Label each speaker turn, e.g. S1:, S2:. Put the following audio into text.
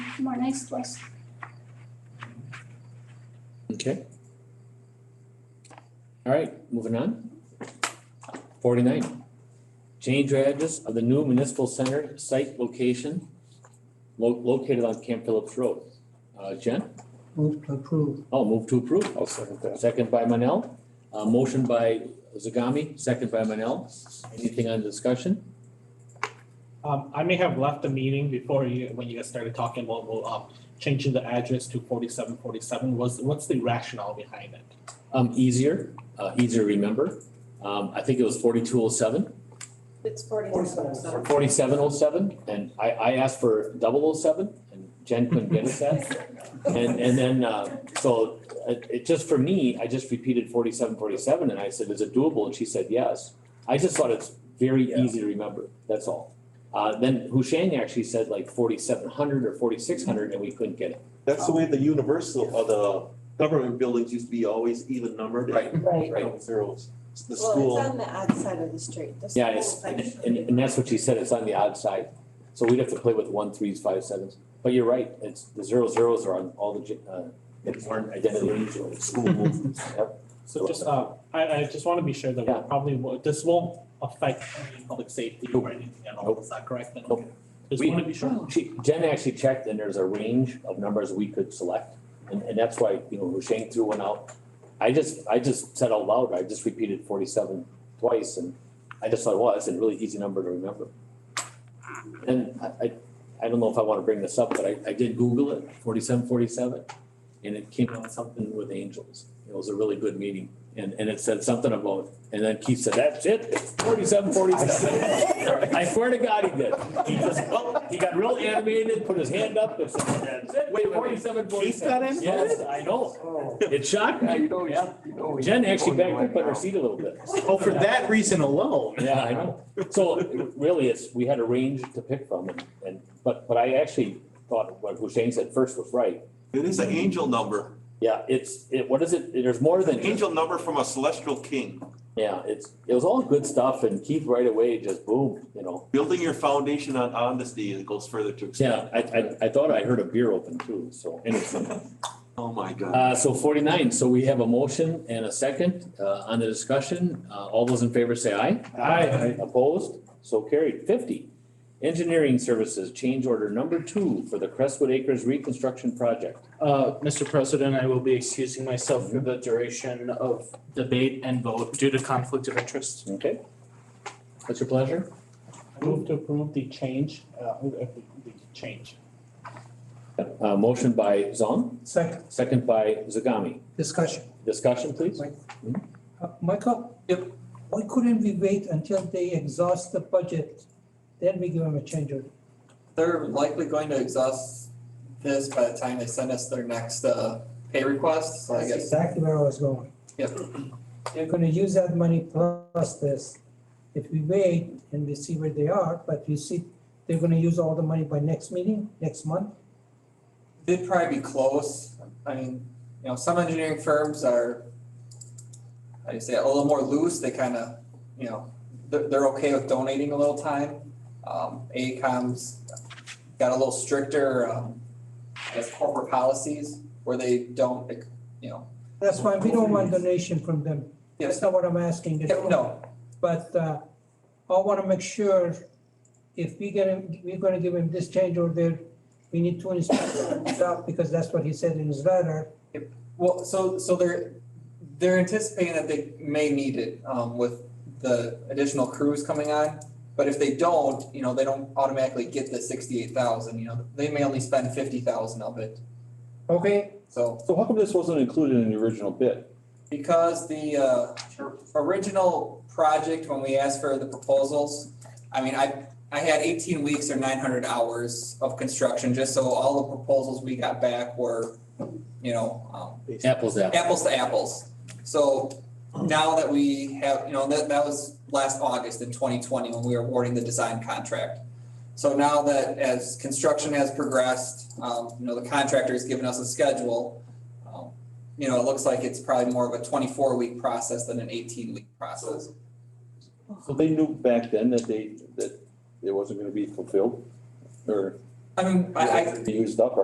S1: more nice place.
S2: Okay. All right, moving on. Forty-nine, change your address of the new municipal center site location lo- located on Camp Phillips Road. Uh, Jen?
S3: Move to approve.
S2: Oh, move to approve.
S4: I'll second that.
S2: Second by Manel. Uh, motion by Zagami, second by Manel. Anything on discussion?
S5: Um, I may have left the meeting before you, when you guys started talking about, well, um, changing the address to forty-seven forty-seven, was, what's the rationale behind it?
S2: Um, easier, uh, easier to remember. Um, I think it was forty-two oh seven.
S6: It's forty-seven, so.
S2: forty-seven oh seven, and I, I asked for double oh seven, and Jen couldn't get us that. And, and then, uh, so, it, it just for me, I just repeated forty-seven, forty-seven, and I said, is it doable? And she said, yes. I just thought it's very easy to remember, that's all. Uh, then Hushang actually said like forty-seven hundred or forty-six hundred, and we couldn't get it.
S7: That's the way the universal, or the government buildings used to be always even numbered.
S2: Right.
S6: Right.
S7: Right, zeros. The
S6: Well, it's
S7: school,
S6: on the outside of the street, the
S2: Yeah, it's,
S6: school
S2: and,
S6: actually-
S2: and, and that's what she said, it's on the odd side, so we'd have to play with one, threes, five, sevens, but you're right, it's, the zero zeros are on all the, gen- uh, it's aren't identity zeros.
S7: school movements.
S5: So just, uh, I, I just wanna be sure that we
S2: Yeah.
S5: probably, won't- this won't affect any public safety or anything at all, is that correct? then?
S2: Nope.
S5: Just
S2: We-
S5: wanna be sure.
S2: She, Jen actually checked, and there's a range of numbers we could select, and, and that's why, you know, Husheng threw one out. I just, I just said out loud, I just repeated forty-seven twice, and I just thought, well, that's a really easy number to remember. And I, I, I don't know if I wanna bring this up, but I, I did Google it, forty-seven, forty-seven, and it came out something with angels. It was a really good meeting, and, and it said something about, and then Keith said, that's it, it's forty-seven, forty-seven. I swear to God he did. He just, well, he got real animated, put his hand up, and said, that's it,
S7: Wait, wait, wait.
S2: forty-seven,
S7: Keith
S2: forty-seven.
S7: got
S2: Yes, I know,
S4: Oh,
S2: it shocked
S4: yeah,
S2: me.
S4: you know, yeah, you know. we-
S2: Jen actually backed up on her seat a little bit.
S8: Oh, for that reason alone.
S2: Yeah, I know. So really, it's, we had a range to pick from and, and, but, but I actually thought what Hussein said first was right.
S7: It is an angel number,
S2: Yeah, it's, it, what is it? There's more than.
S7: an angel number from a celestial king.
S2: Yeah, it's, it was all good stuff and Keith right away just boom, you know.
S7: Building your foundation on honesty, it goes further to
S2: Yeah,
S7: extend.
S2: I, I, I thought I heard a beer open too, so anyway.
S7: Oh, my God.
S2: Uh, so forty-nine, so we have a motion and a second, uh, on the discussion. Uh, all those in favor say aye.
S4: Aye.
S2: Opposed? So carried. Fifty, engineering services, change order number two for the Crestwood Acres reconstruction project.
S8: Uh, Mr. President, I will be excusing myself for the duration of debate and vote due to conflict of interest.
S2: Okay? What's your pleasure?
S5: I move to approve the change, uh, uh, the the change.
S2: Uh, motion by Zong,
S3: Second,
S2: second by Zagami.
S3: discussion.
S2: Discussion, please?
S3: Uh, Michael? Yep. Why couldn't we wait until they exhaust the budget? Then we give them a change order.
S9: They're likely going to exhaust this by the time they send us their next uh pay request, so I
S3: That's
S9: guess,
S3: exactly where I was going.
S9: Yep.
S3: They're gonna use that money plus this. If we wait and we see where they are, but you see, they're gonna use all the money by next meeting, next month.
S9: they'd probably be close. I mean, you know, some engineering firms are, how do you say, it, a little more loose, they kinda, you know, they're they're okay with donating a little time. Um, AECOM's got a little stricter, um, I guess corporate policies where they don't, you know,
S3: That's why we don't want donation from them. That's
S9: yes,
S3: not what I'm asking.
S9: yeah, no,
S3: But uh, I want to make sure if we get him, we're going to give him this change order, we need two inspectors out because that's what he said in his letter.
S9: Well, so so they're they're anticipating that they may need it um with the additional crews coming on. But if they don't, you know, they don't automatically get the sixty-eight thousand, you know, they may only spend fifty thousand of it.
S3: Okay.
S9: So
S4: So how come this wasn't included in the original bid?
S9: because the uh original project, when we asked for the proposals, I mean, I I had eighteen weeks or nine hundred hours of construction, just so all the proposals we got back were, you know, um
S2: Apples, apples.
S9: apples to apples. So now that we have, you know, that, that was last August in twenty twenty when we were awarding the design contract. So now that as construction has progressed, um, you know, the contractor's given us a schedule. um, You know, it looks like it's probably more of a twenty-four week process than an eighteen week process.
S4: So they knew back then that they, that it wasn't gonna be fulfilled or
S9: I mean, I, I,
S4: used up or